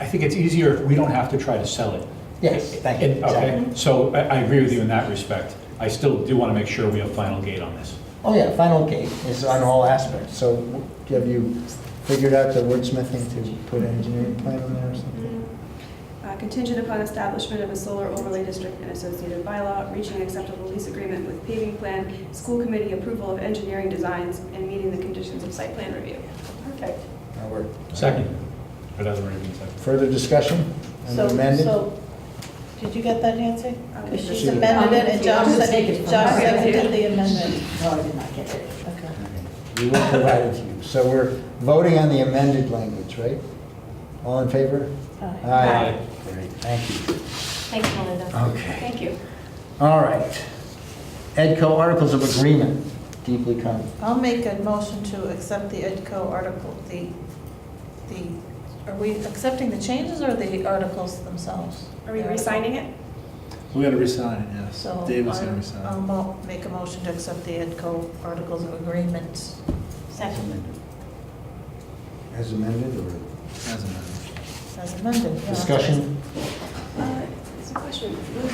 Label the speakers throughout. Speaker 1: I think it's easier if we don't have to try to sell it.
Speaker 2: Yes, thank you.
Speaker 1: And- Okay, so I, I agree with you in that respect. I still do want to make sure we have final gate on this.
Speaker 2: Oh, yeah, final gate is on all aspects.
Speaker 3: So have you figured out the wordsmithing to put an engineering plan on there or something?
Speaker 4: Uh, Contingent upon establishment of a solar overlay district and associated bylaw, reaching acceptable lease agreement with paving plan, school committee approval of engineering designs, and meeting the conditions of site plan review.
Speaker 5: Perfect.
Speaker 3: Or we're-
Speaker 1: Second. Or does it already mean second?
Speaker 3: Further discussion? And
Speaker 5: So,
Speaker 3: amended?
Speaker 5: so, did you get that, Nancy?
Speaker 4: Um,
Speaker 5: Because she's
Speaker 3: she-
Speaker 5: amended it, and Josh
Speaker 6: I'm gonna take it
Speaker 5: said,
Speaker 6: from
Speaker 5: Josh
Speaker 6: her.
Speaker 5: seconded the amendment.
Speaker 6: No, I did not get it.
Speaker 5: Okay.
Speaker 3: We will provide it to you. So we're voting on the amended language, right? All in favor?
Speaker 5: Aye.
Speaker 3: Aye. Great, thank you.
Speaker 6: Thanks, Melinda.
Speaker 3: Okay.
Speaker 4: Thank you.
Speaker 3: All right. EDCO Articles of Agreement, deeply common.
Speaker 5: I'll make a motion to accept the EDCO article, the, the, are we accepting the changes or the articles themselves?
Speaker 4: Are we re-signing it?
Speaker 7: We gotta resign, yes.
Speaker 5: So.
Speaker 7: David's gonna
Speaker 5: I'll- I'll
Speaker 4: um,
Speaker 7: resign.
Speaker 5: mo- make a motion to accept the EDCO articles of agreement.
Speaker 6: Second.
Speaker 3: As amended or
Speaker 7: As amended.
Speaker 5: As amended. yeah.
Speaker 3: discussion?
Speaker 4: Uh, It's a question. Was-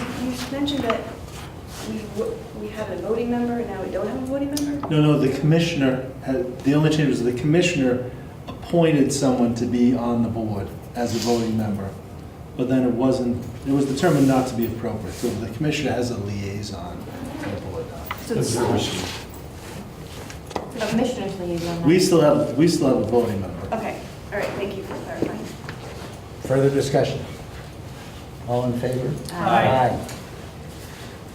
Speaker 4: You mentioned that we w- we had a voting member, and now we don't have a voting member?
Speaker 7: No, no, the commissioner, had- the only change was the commissioner appointed someone to be on the board as a voting member. But then it wasn't, it was determined not to be appropriate, so the commissioner has a liaison to the board now.
Speaker 4: So it's-
Speaker 6: The Commissioners liaison.
Speaker 7: We still have, we still have a voting member.
Speaker 4: Okay, all right, thank you for clarifying.
Speaker 3: Further discussion? All in favor?
Speaker 4: Aye.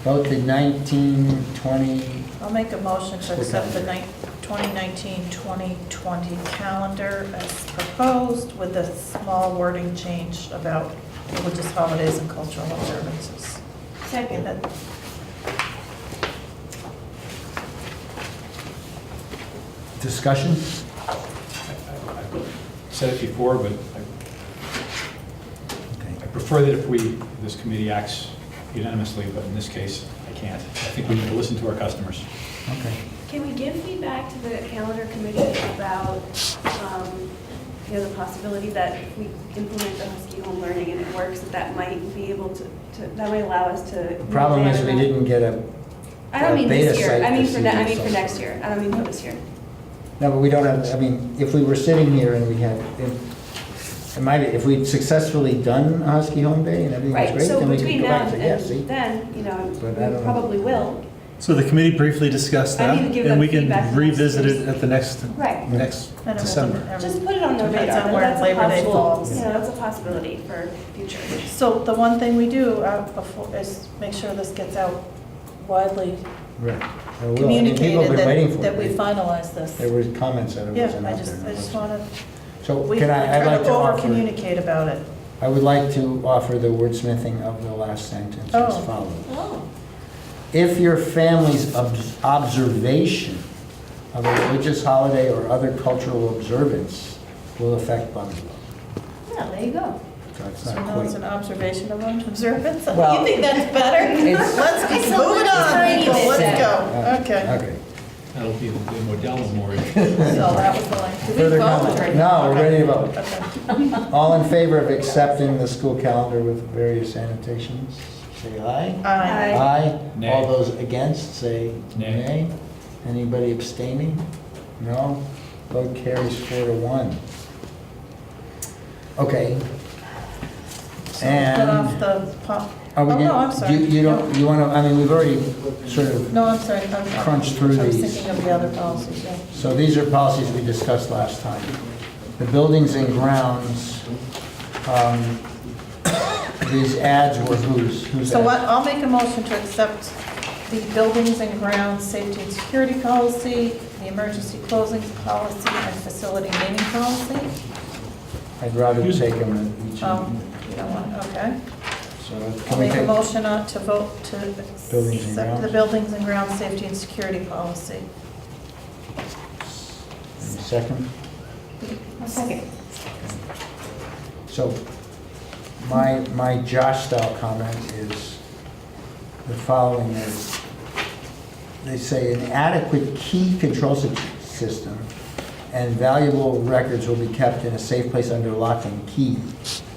Speaker 3: Vote the 1920
Speaker 5: I'll make a motion to
Speaker 3: School
Speaker 5: accept the
Speaker 3: calendar.
Speaker 5: 2019-2020 calendar as proposed with a small wording change about religious holidays and cultural observances.
Speaker 4: Second.
Speaker 5: That-
Speaker 3: discussion?
Speaker 1: Said it before, but I I prefer that if we, this committee acts unanimously, but in this case, I can't. I think we need to listen to our customers.
Speaker 3: Okay.
Speaker 4: Can we give feedback to the calendar committee about, um, you know, the possibility that if we implement the Husky Home Learning and it works, that that might be able to, to- that might allow us to.
Speaker 3: The problem is we didn't get a,
Speaker 4: I don't mean
Speaker 3: beta
Speaker 4: this year,
Speaker 3: site
Speaker 4: I mean for, ne- I
Speaker 3: procedure,
Speaker 4: mean for
Speaker 3: so-
Speaker 4: next year, I don't mean for this year.
Speaker 3: no, but we don't have, I mean, if we were sitting here and we had, if- it might, be- if we'd successfully done a Husky Home Day and everything was
Speaker 4: Right,
Speaker 3: great,
Speaker 4: so
Speaker 3: then we
Speaker 4: between
Speaker 3: could go
Speaker 4: now
Speaker 3: back to, yeah, see?
Speaker 4: and then, you know,
Speaker 3: But I
Speaker 4: we
Speaker 3: don't-
Speaker 4: probably will.
Speaker 7: So the committee briefly discussed
Speaker 4: I
Speaker 7: that,
Speaker 4: need to give them
Speaker 7: and we
Speaker 4: feedback
Speaker 7: can
Speaker 4: for next
Speaker 7: revisit
Speaker 4: year's-
Speaker 7: it at the next,
Speaker 4: Right.
Speaker 7: next
Speaker 5: that it was
Speaker 7: December.
Speaker 5: every-
Speaker 4: Just put it on the
Speaker 5: Depends
Speaker 4: radar,
Speaker 5: on where
Speaker 4: that's a
Speaker 5: Labor Day
Speaker 4: possible,
Speaker 5: falls.
Speaker 4: you know, that's a possibility for future.
Speaker 5: So the one thing we do uh, before, is make sure this gets out widely
Speaker 3: Right. I will. I mean, people have
Speaker 5: communicated
Speaker 3: been waiting for
Speaker 5: that,
Speaker 3: it.
Speaker 5: that we
Speaker 3: They-
Speaker 5: finalize this.
Speaker 3: There were comments that it
Speaker 5: Yeah,
Speaker 3: wasn't
Speaker 5: I
Speaker 3: out
Speaker 5: just,
Speaker 3: there.
Speaker 5: I just want to,
Speaker 3: So
Speaker 5: we
Speaker 3: can I, I'd
Speaker 5: try
Speaker 3: like
Speaker 5: to
Speaker 3: to offer,
Speaker 5: over-communicate about it.
Speaker 3: I would like to offer the wordsmithing of the last sentence
Speaker 5: Oh.
Speaker 3: as follows.
Speaker 5: Oh.
Speaker 3: If your family's ob- observation of a religious holiday or other cultural observance will affect Bungalow.
Speaker 6: Yeah, there you go.
Speaker 3: So it's
Speaker 5: So
Speaker 3: not
Speaker 5: now it's an
Speaker 3: quite.
Speaker 5: observation of observance.
Speaker 3: Well,
Speaker 5: You think that's better?
Speaker 3: it's-
Speaker 5: Let's
Speaker 6: It's a
Speaker 5: move it
Speaker 6: little
Speaker 5: on,
Speaker 6: tiny
Speaker 5: people,
Speaker 6: bit
Speaker 5: let's
Speaker 3: Uh,
Speaker 5: go. Okay.
Speaker 3: Okay.
Speaker 1: That'll be the Modell Memorial.
Speaker 5: So that was the line. Did we
Speaker 3: Further
Speaker 5: vote
Speaker 3: comment?
Speaker 5: already?
Speaker 3: No, we're ready to
Speaker 5: Okay.
Speaker 3: vote.
Speaker 5: Okay.
Speaker 3: All in favor of accepting the school calendar with various annotations, say aye.
Speaker 5: Aye.
Speaker 4: Aye.
Speaker 3: Aye. All
Speaker 1: Nay.
Speaker 3: those against, say
Speaker 1: Nay.
Speaker 3: nay. Anybody abstaining? No? Vote carries four to one. Okay.
Speaker 5: So
Speaker 3: And.
Speaker 5: Cut off the pop.
Speaker 3: Are we
Speaker 5: Oh,
Speaker 3: gonna-
Speaker 5: no, I'm sorry.
Speaker 3: You, you don't, you want to, I mean, we've already sort of,
Speaker 5: No, I'm sorry. I'm-
Speaker 3: Crunch through
Speaker 5: I was
Speaker 3: these.
Speaker 5: thinking of the other policies, yeah.
Speaker 3: so these are policies we discussed last time. The buildings and grounds, um, these ads were whose? Whose
Speaker 5: So what,
Speaker 3: ads?
Speaker 5: I'll make a motion to accept the buildings and grounds safety and security policy, the emergency closings policy, and facility naming policy.
Speaker 3: I'd rather take them in each.
Speaker 5: Um, you don't want, okay.
Speaker 3: So
Speaker 5: I'll
Speaker 3: can we
Speaker 5: make a
Speaker 3: take,
Speaker 5: motion uh, to vote to
Speaker 3: Buildings and
Speaker 5: accept the
Speaker 3: grounds.
Speaker 5: buildings and grounds safety and security policy.
Speaker 3: second?
Speaker 6: A second.
Speaker 3: So my, my Josh style comment is the following is, they say an adequate key control sy- system and valuable records will be kept in a safe place under lock and key.